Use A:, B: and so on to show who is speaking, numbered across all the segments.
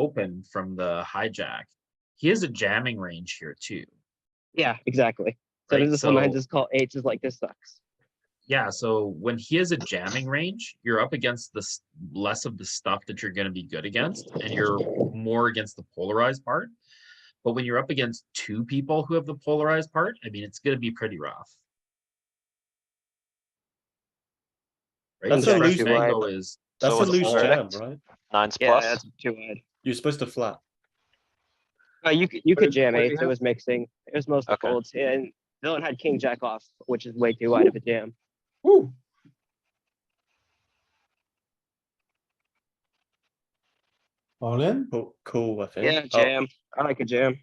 A: open from the hijack, he has a jamming range here too.
B: Yeah, exactly. So
A: Right,
B: does sometimes
A: so-
B: just call eights is like this sucks.
A: Yeah, so when he has a jamming range, you're up against the s- less of the stuff that you're going to be good against, and you're more against the polarized part. But when you're up against two people who have the polarized part, I mean, it's going to be pretty rough. Right?
C: That's
A: so
C: a
A: the first
C: loose-
A: angle is
C: That's
D: So
C: a
D: it's
C: loose
D: all-
C: jam, right?
D: Nines
B: Yeah,
D: plus.
B: that's too wide.
C: You're supposed to flat.
B: Uh, you could you
E: What
B: could
E: did-
B: jam
E: what did you
B: eights. It
E: have?
B: was mixing. It was mostly
D: Okay.
B: folds, and villain had king jack off, which is way too wide of a jam.
E: Woo.
C: All in? Cool, I think.
B: Yeah,
C: Oh,
B: jam. I like a jam.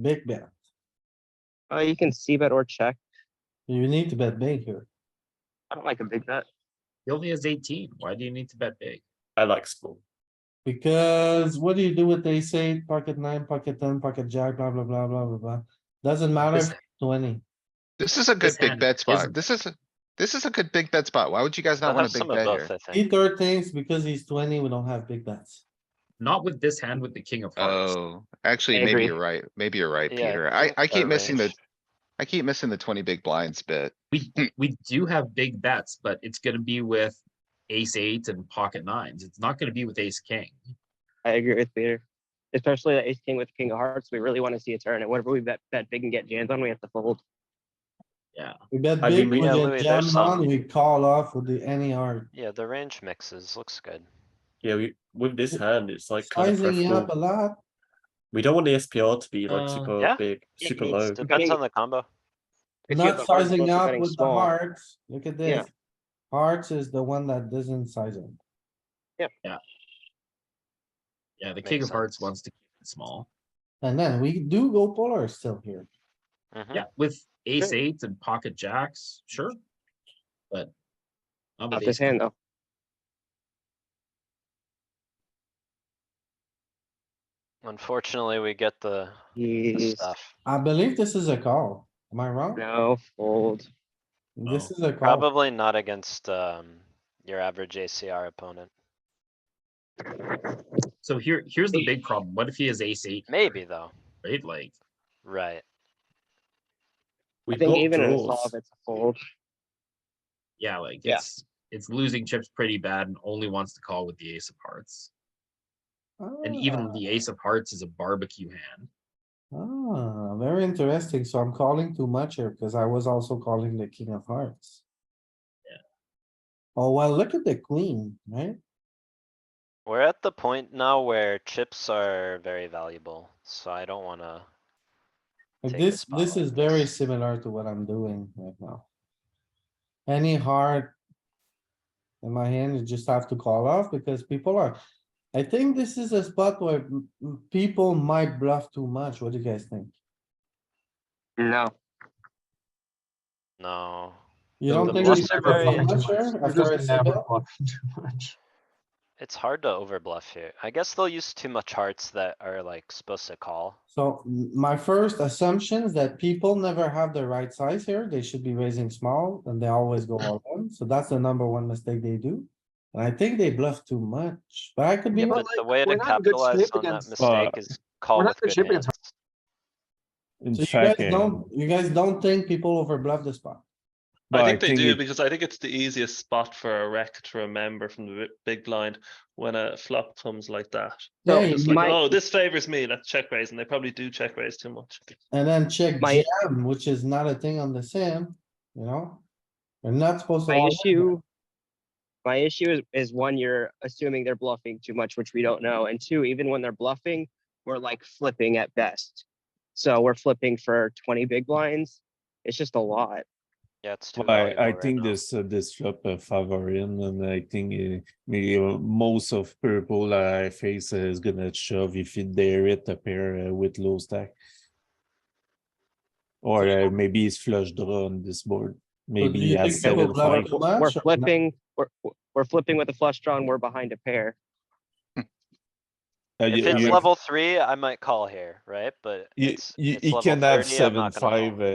E: Big bet.
B: Uh, you can see bet or check.
E: You need to bet big here.
B: I don't like a big bet.
A: he only has 18. Why do you need to bet big?
C: I like small.
E: Because what do you do with ace eight, pocket nine, pocket ten, pocket jack, blah, blah, blah, blah, blah, blah. Doesn't matter,
A: This-
E: if twenty.
F: This is a good
A: This
F: big
A: hand
F: bet
A: isn't-
F: spot. This is, a- this is a good big bet spot. Why would you guys
D: I
F: not
D: have
F: want a big
D: some of
F: bet
D: both,
F: here?
D: I think.
E: He third things because he's twenty, we don't have big bets.
A: Not with this hand with the king of hearts.
F: Oh,
B: I
F: actually, maybe
B: agree.
F: you're right. Maybe you're right,
D: Yeah,
F: Peter. I, I keep
D: our
F: missing the,
D: range.
F: I keep missing the twenty big blinds bit.
A: We do have big bets, but it's going to be with ace eight and pocket nines. It's not going to be with ace king.
B: I agree with Peter, especially that ace king with king of hearts. We really want to see a turn, and whatever we bet bet big and get jams on, we have to fold.
E: We bet
C: I mean,
E: big,
C: we-
E: we
D: Yeah,
E: get
D: Louis, there's
E: jammed on,
D: some-
E: we call off with the any heart.
D: Yeah, the range mixes, looks good.
C: Yeah, we, with this hand, it's like kind of
E: Sizing up a
C: preferable.
E: lot,
C: We don't want the SPR to be
A: Uh,
C: like super
D: Yeah.
C: big,
B: Yeah,
C: super
B: it's
C: low.
B: the-
D: Depends
B: Betting-
D: on the combo.
B: If you have
E: not
B: the hearts,
E: sizing
B: most are
E: up
B: betting
E: with the
B: small.
E: hearts. Look at
B: Yeah.
E: this. Hearts is the one that doesn't size up.
A: Yeah, the king
D: Makes
A: of hearts
D: sense.
A: wants to keep it small.
E: And then we do go polar still here.
D: Mhm.
A: Yeah, with ace
B: Sure.
A: eights and pocket jacks, sure. But. not with
B: Not
A: ace
B: this hand though.
D: Unfortunately, we get the the
B: He's
D: stuff.
E: I believe this is a call. Am I wrong?
B: no fold.
E: This
A: No.
E: is a call.
D: Probably not against, um, your average ACR opponent.
A: king. So here, here's the big problem. What if he has ace eight,
D: Maybe though,
A: right? Like,
D: right?
C: We
B: I think
C: block
B: even in a
C: draws.
B: solve, it's a fold.
A: yeah, like
B: Yeah.
A: it's, it's losing chips pretty bad and only wants to call with the ace of hearts. And even the ace of hearts is a barbecue hand.
E: Ah, very interesting. So I'm calling too much here because I was also calling the king of hearts.
A: Yeah.
E: Oh, well, look at the queen, right?
D: We're at the point now where chips are very valuable, so I don't wanna,
E: Like
D: Take the
E: this, this is
D: spotlight.
E: very similar to what I'm doing right now. Any heart. In my hand, you just have to call off because people are, I think this is a spot where m- m- people might bluff too much. What do you guys think?
B: No.
D: no.
E: You
C: The-
E: don't
C: the
E: think
C: bluff
E: it's
C: never
E: very
C: bluff
E: much here after a sit-up?
D: It's hard to overbluff here. I guess they'll use too much hearts that are like supposed to call.
E: So m- my first assumption is that people never have the right size here. They should be raising small and they always go all in. So that's the number one mistake they do. And I think they bluff too much, but I could be
D: Yeah,
E: wrong.
D: but the way to
E: we're not good
D: capitalize
E: shape
D: on that
E: against-
D: mistake is call
E: we're not
D: with
E: good
D: good
E: shape against
D: hands.
G: in
E: So you guys
G: checking.
E: don't, you guys don't think people over bluff the spot?
G: No,
H: I think they do
G: it-
H: because I think it's the easiest spot for a rec to remember from the bi- big blind when a flop comes like that.
B: No,
E: Yeah,
H: It's
B: just
E: you-
H: like,
B: Mike-
H: oh, this favors me. Let's check raise, and they probably do check raise too much.
E: and then check
B: My-
E: jam, which is not a thing on the sim, you know? We're not supposed to.
B: My
E: all in
B: issue. My issue is, is one, you're assuming they're bluffing too much, which we don't know. And two, even when they're bluffing, we're like flipping at best. So we're flipping for twenty big blinds. It's just a lot.
D: Yeah, it's too
G: Well, I,
D: valuable
G: I
D: right
G: think
D: now.
G: this, uh, this flop uh, favor him, and I think uh, maybe uh, most of purple I face is gonna shove if it dare it a pair uh, with low stack. Or uh, maybe it's flush draw on this board,
E: do
G: maybe he
E: you
G: has
E: think people
G: seven
E: bluff
G: five.
E: too
B: We're
E: much or not?
B: flipping, we're, we're flipping with a flush draw and we're behind a pair.
G: Uh,
D: If
G: you-
D: it's
G: you-
D: level three, I might call here, right? But
G: You,
D: it's.
G: you,
D: it's
G: you
D: level
G: can have
D: 30, I'm
G: seven,
D: not gonna call.
G: five, uh,